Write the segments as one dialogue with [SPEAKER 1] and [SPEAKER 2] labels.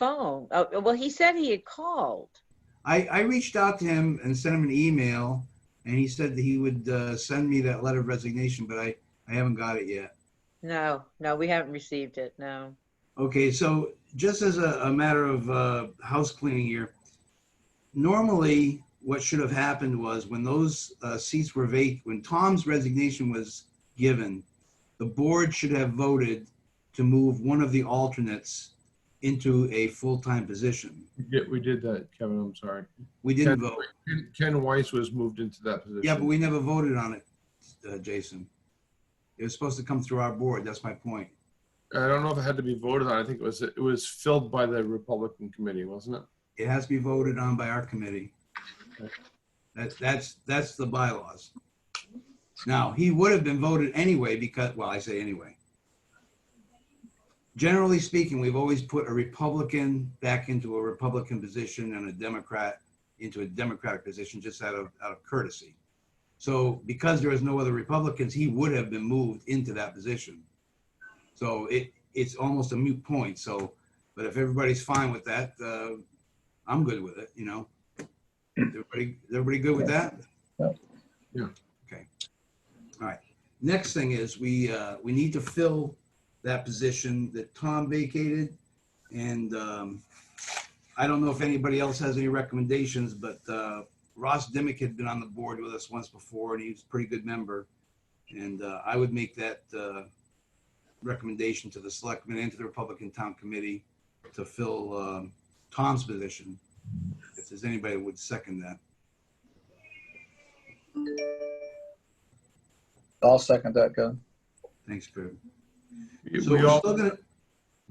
[SPEAKER 1] phone. Oh, well, he said he had called.
[SPEAKER 2] I, I reached out to him and sent him an email, and he said that he would uh, send me that letter of resignation, but I, I haven't got it yet.
[SPEAKER 1] No, no, we haven't received it. No.
[SPEAKER 2] Okay, so just as a, a matter of uh, house cleaning here, normally what should have happened was when those uh, seats were vacant, when Tom's resignation was given, the board should have voted to move one of the alternates into a full-time position.
[SPEAKER 3] We did- We did that, Kevin, I'm sorry.
[SPEAKER 2] We
[SPEAKER 3] Ken
[SPEAKER 2] didn't vote.
[SPEAKER 3] Ken Weiss was moved into that position.
[SPEAKER 2] Yeah, but we never voted on it, uh, Jason. It was supposed to come through our board. That's my point.
[SPEAKER 3] I don't know if it had to be voted on. I think it was, it was filled by the Republican committee, wasn't it?
[SPEAKER 2] It has to be voted on by our committee.
[SPEAKER 3] Okay.
[SPEAKER 2] That's, that's, that's the bylaws. Now, he would have been voted anyway because, well, I say anyway. Generally speaking, we've always put a Republican back into a Republican position and a Democrat into a Democratic position just out of, out of courtesy. So because there is no other Republicans, he would have been moved into that position. So it, it's almost a moot point. So, but if everybody's fine with that, uh, I'm good with it, you know. Everybody, everybody good with that?
[SPEAKER 3] Yeah.
[SPEAKER 2] Okay. All right. Next thing is we, uh, we need to fill that position that Tom vacated. And, um, I don't know if anybody else has any recommendations, but, uh, Ross Dimick had been on the board with us once before and he was a pretty good member. And, uh, I would make that, uh, recommendation to the selectmen and to the Republican Town Committee to fill, um, Tom's position. If there's anybody that would second that.
[SPEAKER 4] I'll second that, Kevin.
[SPEAKER 2] Thanks, Kurt.
[SPEAKER 3] We-
[SPEAKER 2] So
[SPEAKER 3] we
[SPEAKER 2] we're
[SPEAKER 3] all-
[SPEAKER 2] still gonna, Go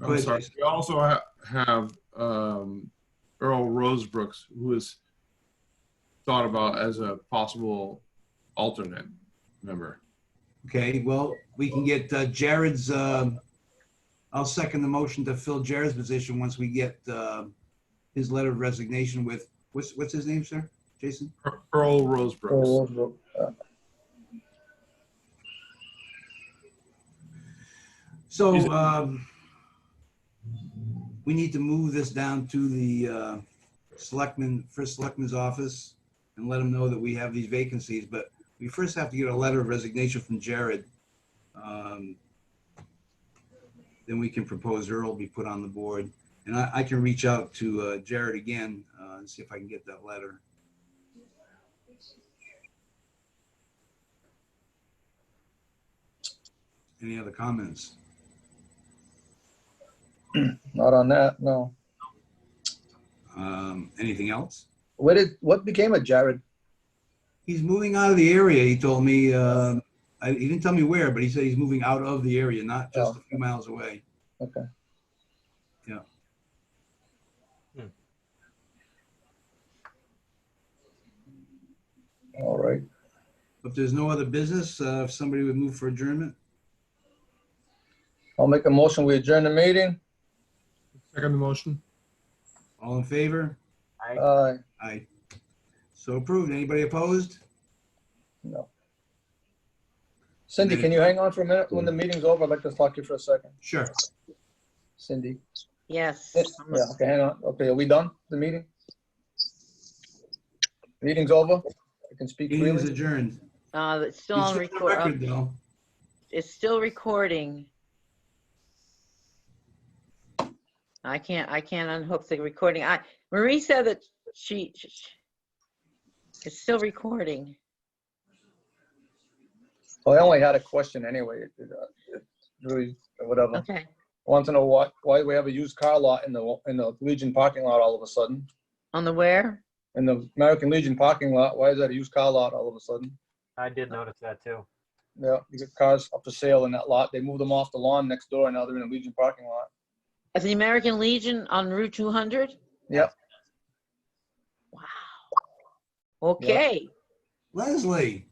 [SPEAKER 3] I'm
[SPEAKER 2] ahead,
[SPEAKER 3] sorry.
[SPEAKER 2] Jason.
[SPEAKER 3] We also ha- have um, Earl Rosebrooks, who is thought about as a possible alternate member.
[SPEAKER 2] okay, well, we can get uh, Jared's, um, I'll second the motion to fill Jared's position once we get um, his letter of resignation with, what's, what's his name, sir? Jason?
[SPEAKER 3] Ear- Earl
[SPEAKER 4] Oh,
[SPEAKER 3] Rosebrooks.
[SPEAKER 2] So
[SPEAKER 3] Is it-
[SPEAKER 2] um, we need to move this down to the uh, selectman, first selectman's office and let him know that we have these vacancies, but we first have to get a letter of resignation from Jared. Um, Then we can propose Earl be put on the board. And I, I can reach out to uh, Jared again uh, and see if I can get that letter. Any other comments?
[SPEAKER 4] Not on that, no.
[SPEAKER 2] Um, Anything else?
[SPEAKER 4] What did, what became of Jared?
[SPEAKER 2] He's moving out of the area, he told me. Um, I- He didn't tell me where, but he said he's moving out of the area, not just a few miles away.
[SPEAKER 4] Okay.
[SPEAKER 2] Yeah.
[SPEAKER 4] All right.
[SPEAKER 2] If there's no other business, uh, if somebody would move for adjournment,
[SPEAKER 4] I'll make a motion. We adjourn the meeting.
[SPEAKER 3] Second the motion.
[SPEAKER 2] all in favor?
[SPEAKER 4] Aye.
[SPEAKER 2] Aye. So approved. Anybody opposed?
[SPEAKER 4] No. Cindy, can you hang on for a minute? When the meeting's over, I'd like to talk to you for a second.
[SPEAKER 2] Sure.
[SPEAKER 4] Cindy.
[SPEAKER 1] Yes.
[SPEAKER 4] Yeah, okay, hang on. Okay, are we done, the meeting? Meeting's over? I can speak
[SPEAKER 2] Meeting is
[SPEAKER 4] freely?
[SPEAKER 2] adjourned.
[SPEAKER 1] Uh, it's still
[SPEAKER 2] It's
[SPEAKER 1] on
[SPEAKER 2] on
[SPEAKER 1] record. oh,
[SPEAKER 2] record, though.
[SPEAKER 1] It's still recording. I can't, I can't unhook the recording. I, Marie said that she, she- it's still recording.
[SPEAKER 4] Well, Oh, I only had a question anyway. It- it, uh, it Really, whatever. I
[SPEAKER 1] Okay,
[SPEAKER 4] Want to know why, why we have a used car lot in the, in the Legion parking lot all of a sudden?
[SPEAKER 1] on the where?
[SPEAKER 4] In the American Legion parking lot, why is that a used car lot all of a sudden?
[SPEAKER 5] I did notice that too.
[SPEAKER 4] Yeah, you get cars up for sale in that lot. They moved them off the lawn next door and now they're in the Legion parking lot.
[SPEAKER 1] At the American Legion on Route 200?
[SPEAKER 4] Yep.
[SPEAKER 1] Wow. Okay.
[SPEAKER 2] Leslie,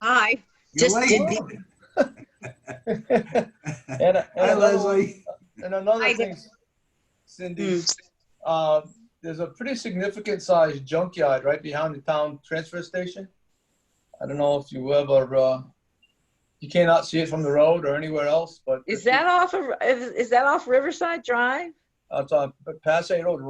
[SPEAKER 6] Hi.
[SPEAKER 2] you're
[SPEAKER 6] Just
[SPEAKER 2] late.
[SPEAKER 4] And, and
[SPEAKER 2] Hi,
[SPEAKER 4] another one-
[SPEAKER 2] Leslie.
[SPEAKER 4] And another
[SPEAKER 6] I
[SPEAKER 4] thing, Cindy, uh, there's a pretty significant sized junkyard right behind the town transfer station. I don't know if you ever, uh, you cannot see it from the road or anywhere else, but.
[SPEAKER 1] Is that off of, is, is that off Riverside Drive?
[SPEAKER 4] It's on Passay Road,